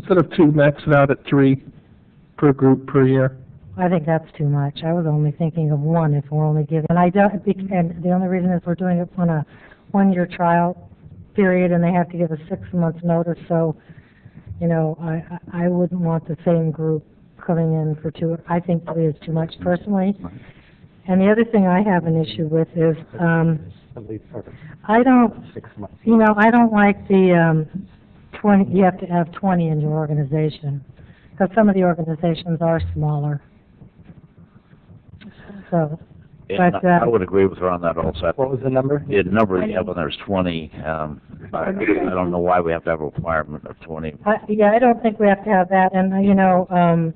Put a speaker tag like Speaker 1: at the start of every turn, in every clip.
Speaker 1: Instead of two, max it out at three per group per year.
Speaker 2: I think that's too much. I was only thinking of one if we're only giving, and I don't, bec- and the only reason is we're doing it on a one-year trial period and they have to give a six-month notice, so, you know, I, I I wouldn't want the same group coming in for two, I think three is too much personally. And the other thing I have an issue with is, um,
Speaker 3: At least for
Speaker 2: I don't,
Speaker 3: six months.
Speaker 2: you know, I don't like the, um, twenty, you have to have twenty in your organization, because some of the organizations are smaller. So,
Speaker 4: Yeah,
Speaker 2: But,
Speaker 4: I I
Speaker 2: uh,
Speaker 4: would agree with her on that also.
Speaker 3: What was the number?
Speaker 4: Yeah, the number you have on there is twenty, um, I, I don't know why we have to have a requirement of twenty.
Speaker 2: I, yeah, I don't think we have to have that, and, uh, you know, um,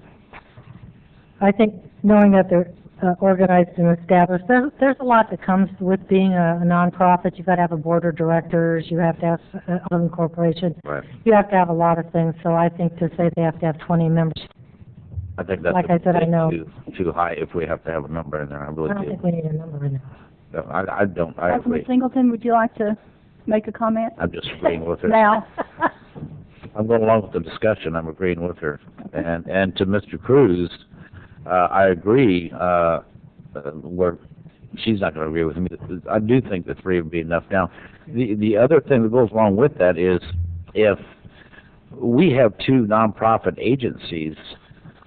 Speaker 2: I think knowing that they're uh, organized and established, there's, there's a lot that comes with being a a nonprofit, you've got to have a board of directors, you have to have uh, an incorporation,
Speaker 4: Right.
Speaker 2: you have to have a lot of things, so I think to say they have to have twenty members,
Speaker 4: I think that's.
Speaker 2: Like I said, I know.
Speaker 4: Too, too high if we have to have a number in there, I
Speaker 2: I
Speaker 4: really
Speaker 2: don't
Speaker 4: do.
Speaker 2: think we need a number in there.
Speaker 4: No, I, I don't, I
Speaker 5: Councilman
Speaker 4: agree.
Speaker 5: Singleton, would you like to make a comment
Speaker 4: I'm just agreeing with her.
Speaker 5: now?
Speaker 4: I'm going along with the discussion, I'm agreeing with her. And, and to Mr. Cruz, uh, I agree, uh, uh, where, she's not gonna agree with me. I do think the three would be enough. Now, the, the other thing that goes along with that is if we have two nonprofit agencies,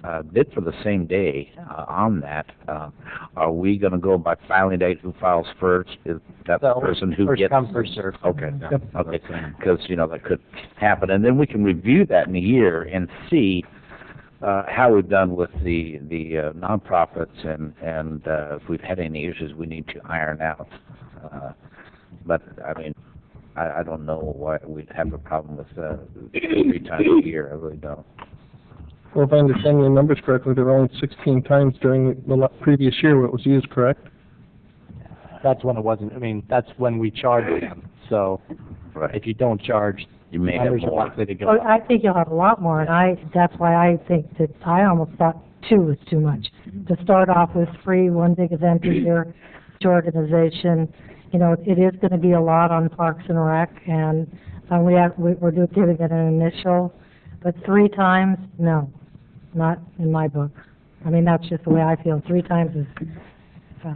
Speaker 4: uh, bid for the same day, uh, on that, uh, are we gonna go by filing date, who files first? Is that the
Speaker 3: So,
Speaker 4: person who
Speaker 3: First
Speaker 4: gets?
Speaker 3: come, first served.
Speaker 4: Okay,
Speaker 1: Yep.
Speaker 4: okay, because, you know, that could happen, and then we can review that in a year and see, uh, how we've done with the, the uh, nonprofits and, and, uh, if we've had any issues we need to iron out. Uh, But, I mean, I, I don't know why we'd have a problem with, uh, three times a year, I really don't.
Speaker 1: Well, if I understand your numbers correctly, there were only sixteen times during the la- previous year where it was used, correct?
Speaker 3: That's when it wasn't, I mean, that's when we charged them. So
Speaker 4: Right.
Speaker 3: if you don't charge,
Speaker 4: You may have
Speaker 3: numbers are
Speaker 4: more.
Speaker 3: likely to go
Speaker 2: Well,
Speaker 3: up.
Speaker 2: Oh, I think you'll have a lot more, and I, that's why I think that, I almost thought two was too much. To start off with free, one big event a year, to organization, you know, it is gonna be a lot on Parks and Rec, and, uh, we have, we- we're do- giving it an initial, but three times, no, not in my book. I mean, that's just the way I feel, three times is, uh,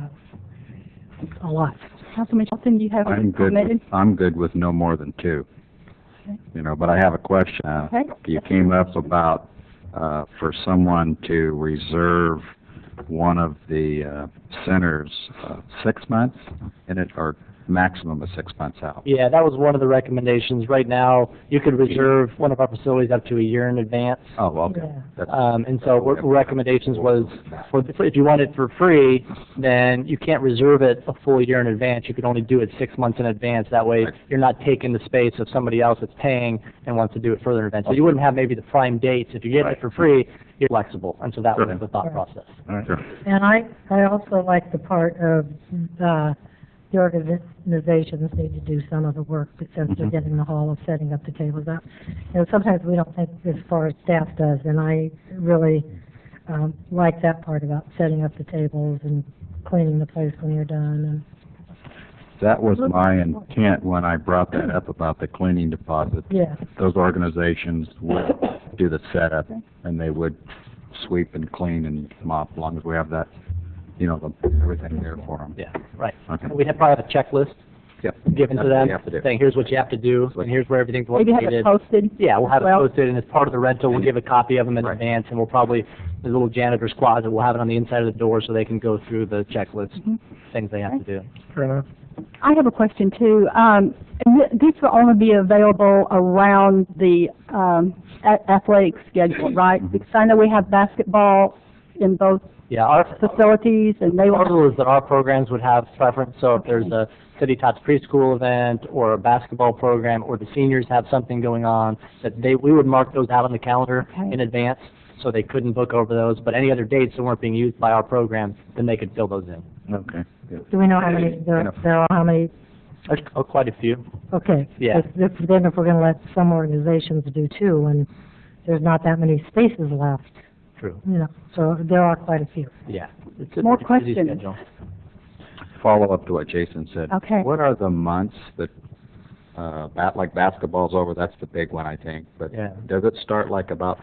Speaker 2: a lot.
Speaker 5: Councilman Singleton, you have
Speaker 6: I'm
Speaker 5: a
Speaker 6: good, with-
Speaker 5: comment?
Speaker 6: I'm good with no more than two.
Speaker 5: Okay.
Speaker 6: You know, but I have a question. Uh,
Speaker 5: Okay.
Speaker 6: You came up about, uh, for someone to reserve one of the, uh, centers, uh, six months in it, or maximum of six months out.
Speaker 3: Yeah, that was one of the recommendations. Right now, you could reserve one of our facilities up to a year in advance.
Speaker 6: Oh, okay.
Speaker 2: Yeah.
Speaker 6: That's-
Speaker 3: Um, and so what recommendations was, for, if you want it for free, then you can't reserve it a full year in advance. You can only do it six months in advance. That way, you're not taking the space of somebody else that's paying and wants to do it further in advance. So you wouldn't have maybe the prime dates. If you're getting it for free, you're flexible. And so that was the thought process.
Speaker 6: Sure.
Speaker 2: And I, I also like the part of, uh, the organizations need to do some of the work, but since they're
Speaker 6: Mhm.
Speaker 2: getting the hall of setting up the tables up. You know, sometimes we don't think as far as staff does, and I really, um, like that part about setting up the tables and cleaning the place when you're done,
Speaker 6: That was my intent when I brought that up about the cleaning deposit.
Speaker 2: and, yeah.
Speaker 6: Those organizations would do the setup, and they would sweep and clean and mop, as long as we have that, you know, the, everything there for them.
Speaker 3: Yeah, right.
Speaker 6: Okay.
Speaker 3: We'd have probably have a checklist
Speaker 6: Yep.
Speaker 3: given to
Speaker 6: That's what
Speaker 3: them,
Speaker 6: you have to do.
Speaker 3: saying, here's what you have to do, and here's where everything's
Speaker 5: Maybe have
Speaker 3: located.
Speaker 5: it posted?
Speaker 3: Yeah, we'll have it
Speaker 5: Well-
Speaker 3: posted, and as part of the rental, we'll give a copy of them in
Speaker 6: Right.
Speaker 3: advance, and we'll probably, the little janitor's closet, we'll have it on the inside of the door so they can go through the checklist,
Speaker 5: Mhm.
Speaker 3: things they have to do.
Speaker 1: Fair enough.
Speaker 5: I have a question too. Um, th- this will only be available around the, um, a- athletic
Speaker 4: Mm-hmm.
Speaker 5: schedule, right? Because I know we have basketball in both
Speaker 3: Yeah, our,
Speaker 5: facilities and they
Speaker 3: our
Speaker 5: will,
Speaker 3: rule is that our programs would have preference, so if there's a City Tots preschool event, or a basketball program, or the seniors have something going on, that they, we would mark those out on the calendar
Speaker 5: Okay.
Speaker 3: in advance, so they couldn't book over those, but any other dates that weren't being used by our program, then they could fill those in.
Speaker 4: Okay.
Speaker 2: Do we know how many, there, there are how many,
Speaker 3: There's uh, quite a few.
Speaker 2: okay.
Speaker 3: Yeah.
Speaker 2: If- if- Then if we're gonna let some organizations do two, and there's not that many spaces left,
Speaker 3: True.
Speaker 2: you know, so there are quite a few.
Speaker 3: Yeah. It's a
Speaker 5: More
Speaker 3: pretty busy
Speaker 5: questions?
Speaker 3: schedule.
Speaker 6: follow up to what Jason said.
Speaker 5: okay.
Speaker 6: What are the months that
Speaker 4: uh, bat, like basketball's over, that's the big one, I think, but
Speaker 7: Yeah.
Speaker 4: does it start like about